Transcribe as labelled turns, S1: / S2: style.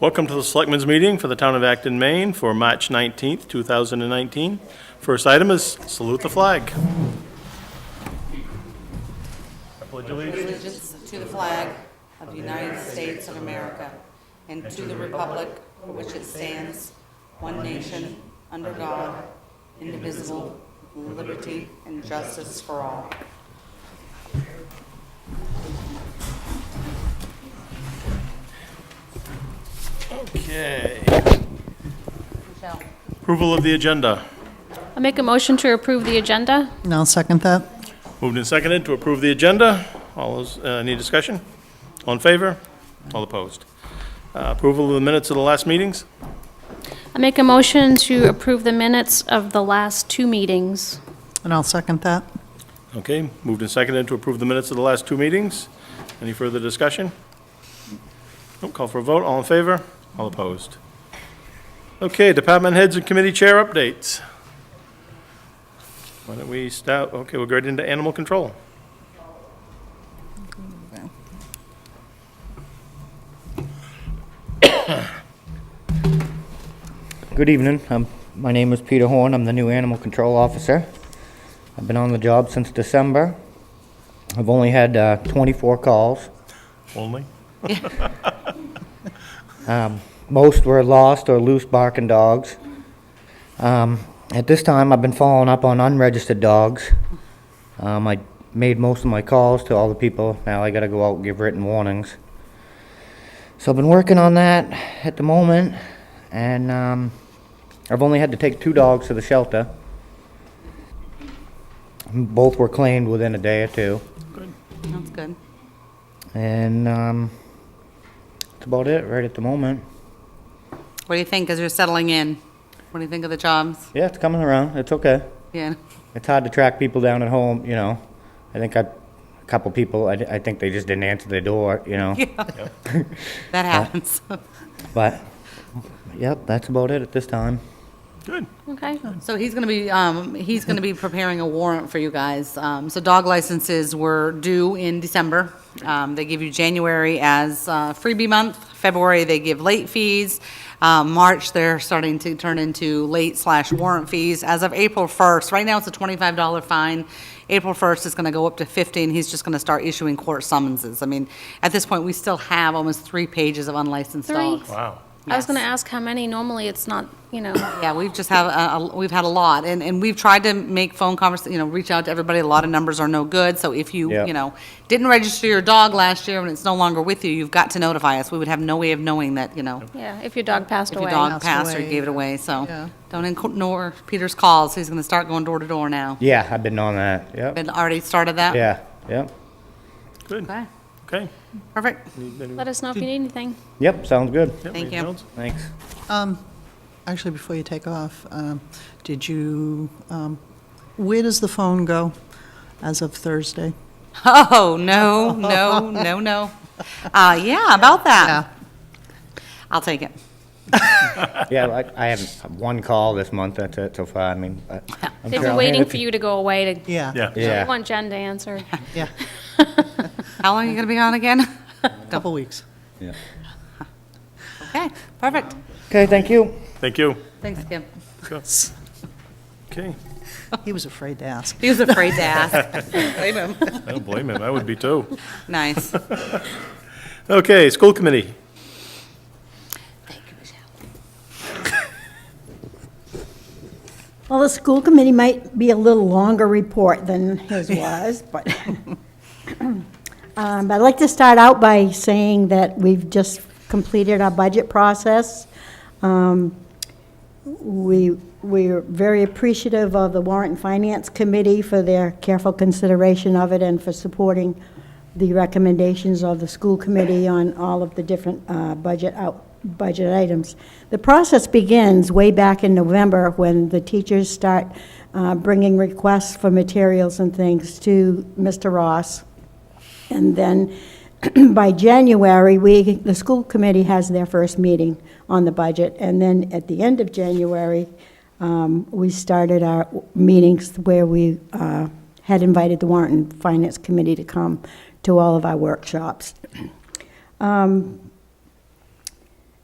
S1: Welcome to the Selectmen's Meeting for the Town of Acton, Maine for March 19th, 2019. First item is salute the flag.
S2: allegiance to the flag of the United States of America and to the republic for which it stands, one nation, under God, indivisible, with liberty and justice for all.
S1: Okay.
S2: Michelle?
S1: Approval of the agenda.
S3: I'll make a motion to approve the agenda.
S4: And I'll second that.
S1: Moved and seconded to approve the agenda. All those, uh, any discussion? All in favor? All opposed? Uh, Approval of the minutes of the last meetings?
S3: I'll make a motion to approve the minutes of the last two meetings.
S4: And I'll second that.
S1: Okay, moved and seconded to approve the minutes of the last two meetings. Any further discussion? Nope, Call for a vote, all in favor, all opposed. Okay, department heads and committee chair updates. Why don't we start, okay, we'll go right into animal control.
S5: Good evening. Um, my name is Peter Horn. I'm the new animal control officer. I've been on the job since December. I've only had uh, 24 calls.
S1: Only?
S5: Most were lost or loose barking dogs. Um, at this time, I've been following up on unregistered dogs. Um, I made most of my calls to all the people. Now I got to go out and give written warnings. So I've been working on that at the moment, and um, I've only had to take two dogs to the shelter. Both were claimed within a day or two,
S2: That's good.
S5: and um, that's about it right at the moment.
S2: What do you think as you're settling in? What do you think of the jobs?
S5: Yeah, it's coming around. It's okay.
S2: Yeah,
S5: It's hard to track people down at home, you know. I think I, a couple people, I, I think they just didn't answer the door, you know.
S2: that happens.
S5: But, yep, that's about it at this time.
S1: Good.
S3: Okay.
S2: So he's going to be, um, he's going to be preparing a warrant for you guys. Um, so dog licenses were due in December. Um, they give you January as, uh, freebie month. February, they give late fees. Uh, March, they're starting to turn into late slash warrant fees. As of April first, right now it's a twenty-five dollar fine. April first is going to go up to fifty, and he's just going to start issuing court summonses. I mean, at this point, we still have almost three pages of unlicensed
S3: Three.
S2: dogs.
S1: Wow.
S3: I was gonna ask how many. Normally, it's not, you know,
S2: Yeah, we've just have, a- a- we've had a lot, and, and we've tried to make phone convers, you know, reach out to everybody, a lot of numbers are no good, so if you,
S5: Yeah.
S2: you know, didn't register your dog last year and it's no longer with you, you've got to notify us, we would have no way of knowing that, you know,
S3: yeah, if your dog passed
S2: if your
S3: away.
S2: dog
S4: Passed
S2: passed or you
S4: away.
S2: gave it away, so.
S4: Yeah.
S2: Don't ignore Peter's calls, he's gonna start going door to door now.
S5: Yeah, I've been on that. Yep.
S2: Been, already started that?
S5: Yeah, yep.
S1: Good.
S2: Okay,
S1: Okay.
S2: perfect,
S3: Let us know if you need anything.
S5: Yep, sounds good.
S1: Yep,
S2: Thank
S1: anything
S2: you.
S1: else?
S5: Thanks.
S4: Um, Actually, before you take off, um, did you, um, where does the phone go as of Thursday?
S2: oh, no, no, no, no, uh, yeah, about that, I'll take it.
S5: Yeah, I, I haven't, one call this month, that's it so far. I mean, I- I'm
S3: They've
S5: sure
S3: been
S5: I'll
S3: waiting
S5: handle
S3: for you to go away to,
S4: Yeah.
S1: Yeah.
S3: I
S5: Yeah,
S3: want Jen to answer.
S4: Yeah,
S2: How long are you gonna be on again?
S4: couple weeks.
S2: Okay, perfect,
S5: okay, thank you.
S1: Thank you.
S2: thanks, Kim.
S1: Okay.
S4: He was afraid to ask.
S2: He was afraid to ask. Blame him.
S1: I don't blame him. I would be too.
S2: Nice.
S1: Okay, school committee.
S6: Well, the school committee might be a little longer report than his was, but, Um, but I'd like to start out by saying that we've just completed our budget process. Um, We, we're very appreciative of the Warrant and Finance Committee for their careful consideration of it and for supporting the recommendations of the school committee on all of the different uh, budget out, budget items. The process begins way back in November when the teachers start uh, bringing requests for materials and things to Mr. Ross. And then by January, we, the school committee has their first meeting on the budget. And then at the end of January, um, we started our meetings where we uh, had invited the warrant and finance committee to come to all of our workshops. Um,